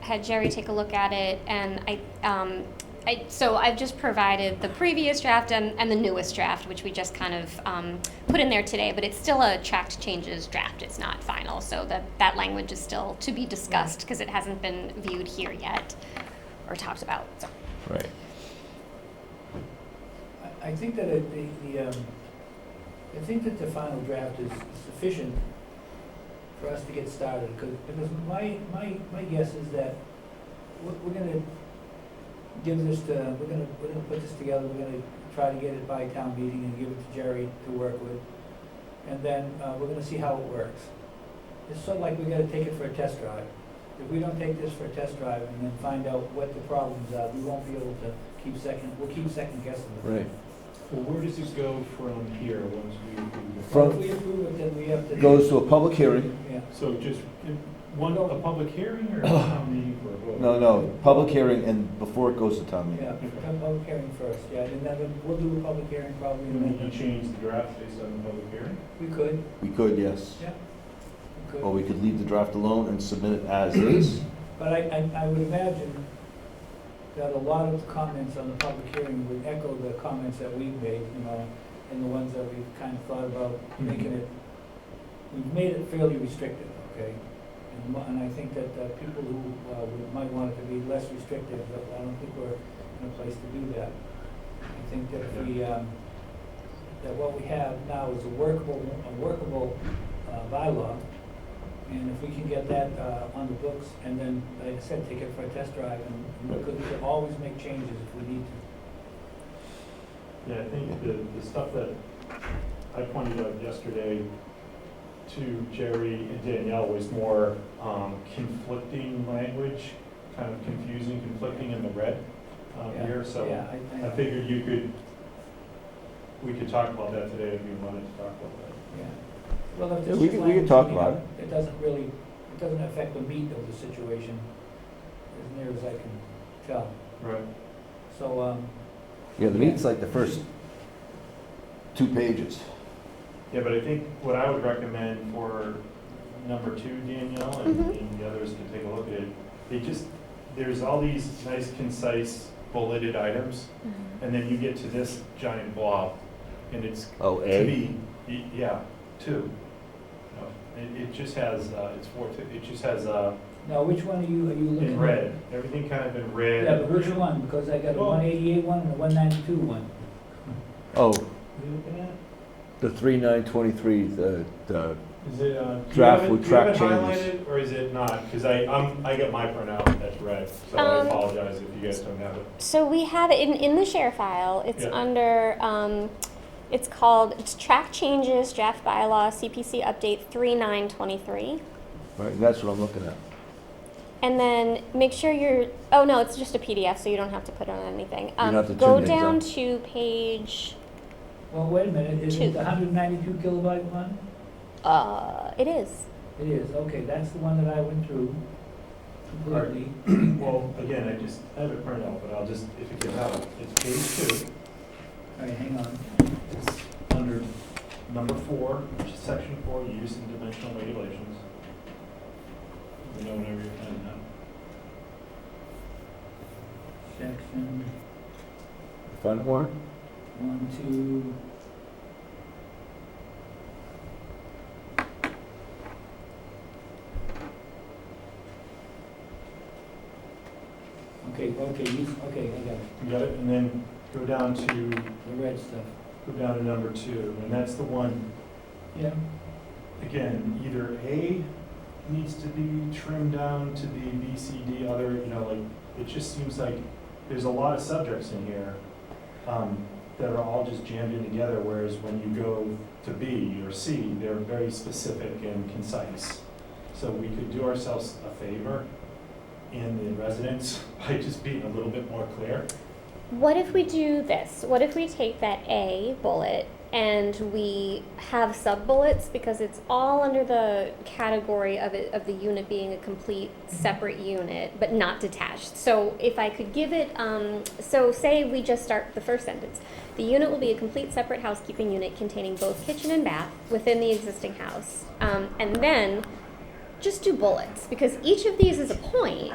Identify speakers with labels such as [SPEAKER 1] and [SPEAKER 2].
[SPEAKER 1] had Jerry take a look at it, and I, um, I, so I've just provided the previous draft and, and the newest draft, which we just kind of um, put in there today, but it's still a tracked changes draft. It's not final, so that, that language is still to be discussed because it hasn't been viewed here yet or talked about. So.
[SPEAKER 2] Right.
[SPEAKER 3] I- I think that it- the, the, um, I think that the final draft is sufficient for us to get started, 'cause- because my, my, my guess is that we're, we're gonna give this to, we're gonna, we're gonna put this together, we're gonna try to get it by town meeting and give it to Jerry to work with, and then, uh, we're gonna see how it works. It's sort of like we gotta take it for a test drive. If we don't take this for a test drive and then find out what the problems are, we won't be able to keep second, we'll keep second guessing it.
[SPEAKER 2] Right.
[SPEAKER 4] Well, where does it go from here once we approve it?
[SPEAKER 3] Well,
[SPEAKER 2] From-
[SPEAKER 3] If we approve it, then we have to.
[SPEAKER 2] Goes to a public hearing.
[SPEAKER 3] Yeah,
[SPEAKER 4] So just in- one, a public hearing or a town meeting for a vote?
[SPEAKER 2] No, no, public hearing and before it goes to town meeting.
[SPEAKER 3] yeah, come public hearing first, yeah, and then we'll do a public hearing probably,
[SPEAKER 4] And
[SPEAKER 3] and
[SPEAKER 4] then
[SPEAKER 3] then
[SPEAKER 4] you change the draft based on the public hearing?
[SPEAKER 3] we could,
[SPEAKER 2] We could, yes.
[SPEAKER 3] yeah, we
[SPEAKER 2] Or
[SPEAKER 3] could.
[SPEAKER 2] we could leave the draft alone and submit it as is.
[SPEAKER 3] But I, I, I would imagine that a lot of the comments on the public hearing would echo the comments that we've made, you know, and the ones that we've kind of thought about making it, we've made it fairly restrictive, okay? And, mo- and I think that, uh people who, uh, would- might want it to be less restrictive, but I don't think we're in a place to do that. I think that if we, um, that what we have now is a workable, a workable, uh, bylaw. And if we can get that, uh, on the books, and then, like I said, take it for a test drive, and we could, we could always make changes if we need to.
[SPEAKER 4] Yeah, I think the, the stuff that I pointed out yesterday to Jerry and Danielle was more um, conflicting language, kind of confusing, conflicting in the red um,
[SPEAKER 3] Yeah,
[SPEAKER 4] here, so.
[SPEAKER 3] Yeah, I,
[SPEAKER 4] I
[SPEAKER 3] I,
[SPEAKER 4] figured you could, we could talk about that today if you wanted to talk about that.
[SPEAKER 3] yeah. Well, if
[SPEAKER 2] Yeah,
[SPEAKER 3] this
[SPEAKER 2] we can- we
[SPEAKER 3] is
[SPEAKER 2] can
[SPEAKER 3] language,
[SPEAKER 2] talk
[SPEAKER 3] you know,
[SPEAKER 2] about it.
[SPEAKER 3] It doesn't really, it doesn't affect the meat of the situation, as near as I can tell.
[SPEAKER 4] Right.
[SPEAKER 3] So, um,
[SPEAKER 2] Yeah, the meeting's like the first two pages.
[SPEAKER 4] Yeah, but I think what I would recommend for number two, Danielle, and
[SPEAKER 1] Mhm.
[SPEAKER 4] and the others can take a look at it, it just, there's all these nice concise bulleted items,
[SPEAKER 1] Mm-hmm.
[SPEAKER 4] and then you get to this giant blob, and it's,
[SPEAKER 2] Oh,
[SPEAKER 4] to me, y- yeah, two. No, It, it just has, uh, it's four, two- it just has, uh,
[SPEAKER 3] now, which one are you, are you looking at?
[SPEAKER 4] in red, everything kind of in
[SPEAKER 3] Mm-hmm.
[SPEAKER 4] red.
[SPEAKER 3] Yeah, but which one, because I got a
[SPEAKER 4] Oh.
[SPEAKER 3] one eighty-eight one and a one ninety-two one.
[SPEAKER 2] Oh,
[SPEAKER 4] What are you looking at?
[SPEAKER 2] the three nine twenty-three, the, the,
[SPEAKER 4] Is it, uh? do you
[SPEAKER 2] Draft
[SPEAKER 4] have it-
[SPEAKER 2] with
[SPEAKER 4] do you
[SPEAKER 2] track
[SPEAKER 4] have it
[SPEAKER 2] changes.
[SPEAKER 4] highlighted, Or is it not? Because I, I'm, I got my printout that's red, so I
[SPEAKER 1] Um,
[SPEAKER 4] apologize if you guys don't have it.
[SPEAKER 1] So we have it in, in the share file. It's
[SPEAKER 4] Yeah.
[SPEAKER 1] under, um, it's called, it's track changes, draft bylaw, CPC update 3923.
[SPEAKER 2] right, that's what I'm looking at.
[SPEAKER 1] And then make sure you're, oh no, it's just a PDF, so you don't have to put on anything. Um,
[SPEAKER 2] don't have to
[SPEAKER 1] go
[SPEAKER 2] turn things
[SPEAKER 1] down
[SPEAKER 2] on.
[SPEAKER 1] to page,
[SPEAKER 3] Well, wait a minute, is it
[SPEAKER 1] Two.
[SPEAKER 3] the hundred ninety-two kilobyte one?
[SPEAKER 1] uh, it is.
[SPEAKER 3] It is, okay, that's the one that I went through completely.
[SPEAKER 4] Well, again, I just, I have a printout, but I'll just, if it gets out, it's page two,
[SPEAKER 3] All right, hang on.
[SPEAKER 4] it's under number four, which is section four, use and dimensional regulations. You know, whenever you're done now.
[SPEAKER 3] Section
[SPEAKER 2] Find it, Warren?
[SPEAKER 3] one, two. Okay, okay, you, okay, I got it,
[SPEAKER 4] You got it, and then go down to,
[SPEAKER 3] the red stuff.
[SPEAKER 4] go down to number two, and that's the one
[SPEAKER 3] Yeah.
[SPEAKER 4] again, either A needs to be trimmed down to be B, C, D, other, you know, like, it just seems like there's a lot of subjects in here um, that are all just jammed in together, whereas when you go to B or C, they're very specific and concise. So we could do ourselves a favor in the residents by just being a little bit more clear.
[SPEAKER 1] What if we do this? What if we take that A bullet and we have sub bullets because it's all under the category of it, of the unit being a complete separate unit but not detached. So if I could give it, um, so say we just start the first sentence. The unit will be a complete separate housekeeping unit containing both kitchen and bath within the existing house, um, and then just do bullets because each of these is a point